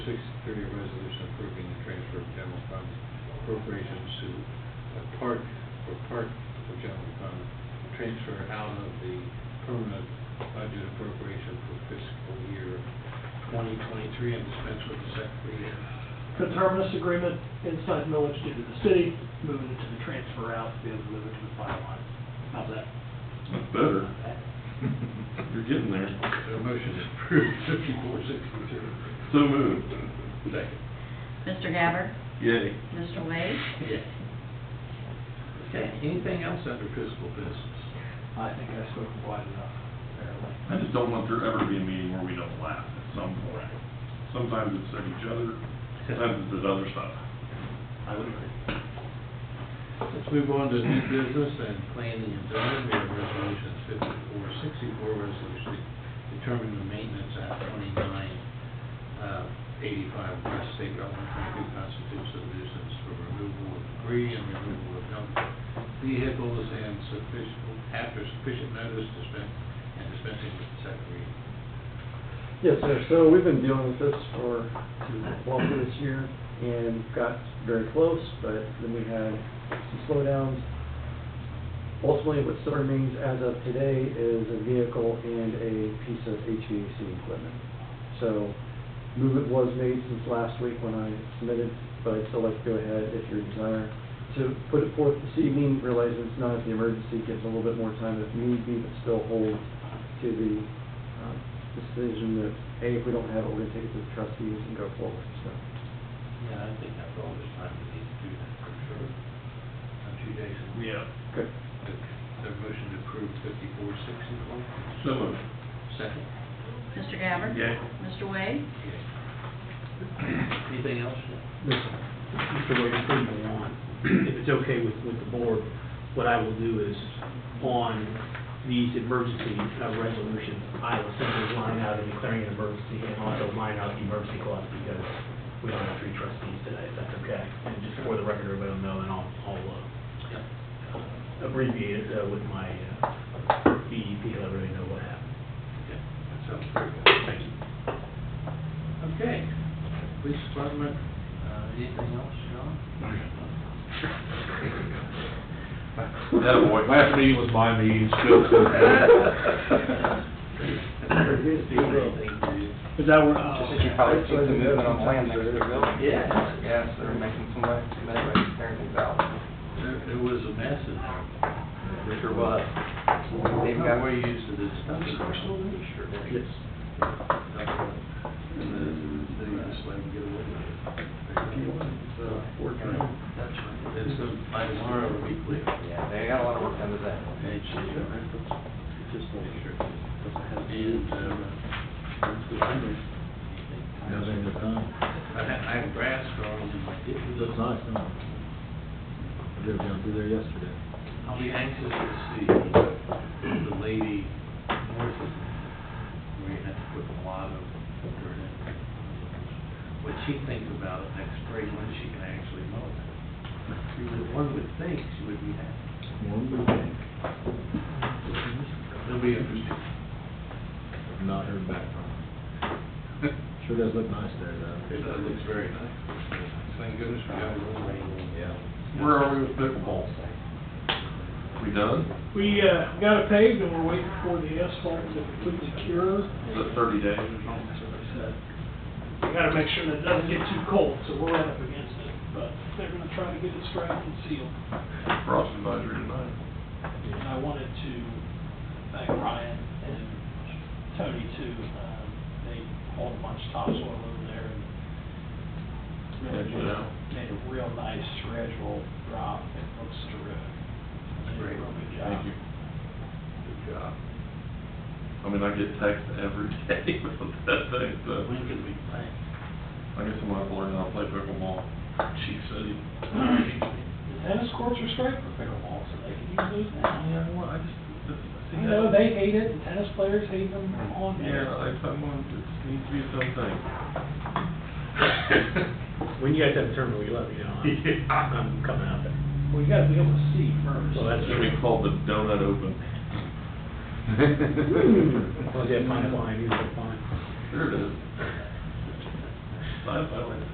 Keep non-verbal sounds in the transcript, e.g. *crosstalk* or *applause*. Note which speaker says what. Speaker 1: Six thirty, resolution approving the transfer of general fund appropriations to a park, for park for general fund, transfer out of the permanent budget appropriation for fiscal year twenty twenty-three and dispense with the secretary.
Speaker 2: Conterminous agreement, inside millage due to the city, moving it to the transfer out, the other moving to the fire line. How's that?
Speaker 3: That's better. You're getting there.
Speaker 1: The motion is approved, fifty-four sixty-two.
Speaker 3: So moved.
Speaker 1: Second.
Speaker 4: Mr. Gabbard?
Speaker 3: Yay.
Speaker 4: Mr. Wade?
Speaker 1: Yes. Okay, anything else under fiscal business?
Speaker 2: I think I spoke wide enough, apparently.
Speaker 3: I just don't want there ever to be a meeting where we don't laugh at some point. Sometimes it's at each other, sometimes it's at other stuff.
Speaker 2: I would agree.
Speaker 1: Let's move on to new business and planning and zoning. We have resolutions fifty-four, sixty-four, resolution determining the maintenance at twenty-nine, uh, eighty-five West State Road one twenty-two constitutes a nuisance for removal of debris and removal of junk vehicles and sufficient, after sufficient notice dispense, and dispensing with the second reading.
Speaker 5: Yes, sir, so we've been dealing with this for, well, for this year, and got very close, but then we had some slowdowns. Ultimately, what still remains as of today is a vehicle and a piece of HVAC equipment. So, movement was made since last week when I submitted, but I'd still like to go ahead if your desire to put it forth this evening, realizing it's not the emergency, gives a little bit more time if need be, but still hold to the um, decision that, hey, if we don't have it, we're gonna take it to the trustees and go forward, so.
Speaker 1: Yeah, I think that's all this time we need to do that for sure. Not two days.
Speaker 3: Yeah.
Speaker 5: Good.
Speaker 1: The motion to approve fifty-four, sixty-four.
Speaker 3: So moved.
Speaker 1: Second.
Speaker 4: Mr. Gabbard?
Speaker 3: Yay.
Speaker 4: Mr. Wade?
Speaker 6: Anything else?
Speaker 5: Mr. Wade,
Speaker 6: If it's okay with, with the board, what I will do is, on these emergency uh, resolutions, I will simply line out and declaring an emergency, and also line out the emergency clause, because we don't have three trustees today, if that's okay. And just for the record, everybody will know, and I'll, I'll uh, I'll abbreviate it uh, with my uh, BEP, let everybody know what happened.
Speaker 1: Okay, that sounds pretty good.
Speaker 6: Thank you.
Speaker 1: Okay, police department, uh, anything else, John?
Speaker 3: *laughs* Attaboy. Last meeting was my meeting, still.
Speaker 6: Is that where, uh,
Speaker 7: Did you probably see the movement on plan next to the building?
Speaker 6: Yeah.
Speaker 7: Yes, they're making some way, some way to clear things out.
Speaker 1: There, there was a mess in there.
Speaker 7: Sure was.
Speaker 1: They've
Speaker 7: They've
Speaker 1: got
Speaker 7: got-
Speaker 1: where you used to this stuff. Sure did.
Speaker 6: Yes.
Speaker 1: And then they just let them get away with it. So, that's right. uh, It's gonna- by tomorrow, it'll be clear. uh,
Speaker 7: Yeah, they got a lot of work done today.
Speaker 1: Just make sure. And, uh,
Speaker 8: Nothing to come.
Speaker 1: I have, I have grass growing in my
Speaker 8: It
Speaker 1: ditch.
Speaker 8: looks nice, huh? I drove down through there yesterday.
Speaker 1: I'll be anxious to see the lady north of, where you had to put a lot of dirt in. What she thinks about it next spring, when she can actually mow it. She would- One would think she would be happy.
Speaker 8: One would think.
Speaker 1: It'll be interesting.
Speaker 8: I've Not heard back from him. Sure does look nice there, though.
Speaker 1: *laughs* It looks very nice. Thank goodness we got a little rain.
Speaker 8: Yeah.
Speaker 3: Where are we with pickleball? We done?
Speaker 2: We, uh, got it paved and we're waiting for the asphalt to completely cure.
Speaker 3: Is it thirty days or something?
Speaker 2: We gotta make sure that it doesn't get too cold, so we're right up against it, but they're gonna try to get it strapped and sealed.
Speaker 3: Frost advisory tonight.
Speaker 2: And I wanted to thank Ryan and Tony too. Um, They hauled a bunch of topsoil over there and really
Speaker 3: Edged it out.
Speaker 2: made a real nice gradual drop. It looks terrific. They did a
Speaker 1: Great.
Speaker 2: real good job.
Speaker 3: Thank you.
Speaker 1: Good job.
Speaker 3: I mean, I get texts every *laughs* day about that thing, so.
Speaker 1: When can we play?
Speaker 3: I guess I'm gonna have to learn how to play pickleball. Chief City.
Speaker 2: The tennis courts are straight for pickleball, so they can use those now.
Speaker 3: Yeah, well, I just, that's, see.
Speaker 2: I know, they hate it, the tennis players hate them on
Speaker 3: Yeah,
Speaker 2: there.
Speaker 3: I, I'm on, it needs to be its own thing.
Speaker 6: When you guys have a tournament, will you let me know?
Speaker 1: *laughs*
Speaker 6: I'm- I'm coming out there.
Speaker 2: Well, you gotta be able to see first.
Speaker 6: Well, that's
Speaker 3: Should be
Speaker 6: *laughs*
Speaker 3: called the donut
Speaker 2: *laughs*
Speaker 3: open.
Speaker 6: Well, yeah, fine, fine, you look fine.
Speaker 3: There it is. I- I like